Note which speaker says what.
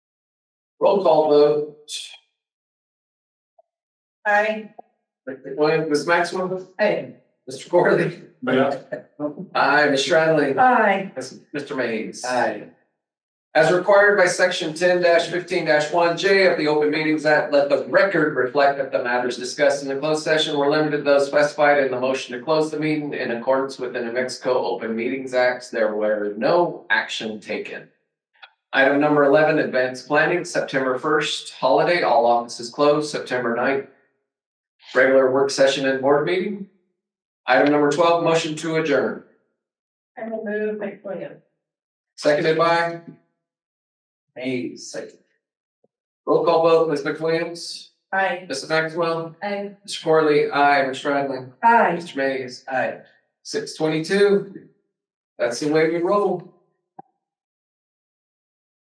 Speaker 1: Roll call vote,
Speaker 2: Aye.
Speaker 1: William, Ms. Maxwell,
Speaker 2: Aye.
Speaker 1: Mr. Corley.
Speaker 3: Yeah.
Speaker 1: Aye, Ms. Stradling.
Speaker 2: Aye.
Speaker 1: Yes, Mr. Mays.
Speaker 4: Aye.
Speaker 1: As required by section ten fifteen one J of the Open Meetings Act, let the record reflect that the matters discussed in the closed session were limited to those specified in the motion to close the meeting in accordance with the New Mexico Open Meetings Act. There were no action taken. Item number eleven, advanced planning, September first, holiday, all offices closed, September 9th, Regular work session and board meeting. Item number twelve, motion to adjourn,
Speaker 2: I will move McWilliams.
Speaker 1: seconded by
Speaker 4: Mays, second.
Speaker 1: Roll call vote, Ms. McWilliams,
Speaker 2: Aye.
Speaker 1: Mrs. Maxwell,
Speaker 2: Aye.
Speaker 1: Mr. Corley, I, Ms. Stradling,
Speaker 2: Aye.
Speaker 1: Mr. Mays,
Speaker 4: Aye.
Speaker 1: six twenty-two. That's the way we roll.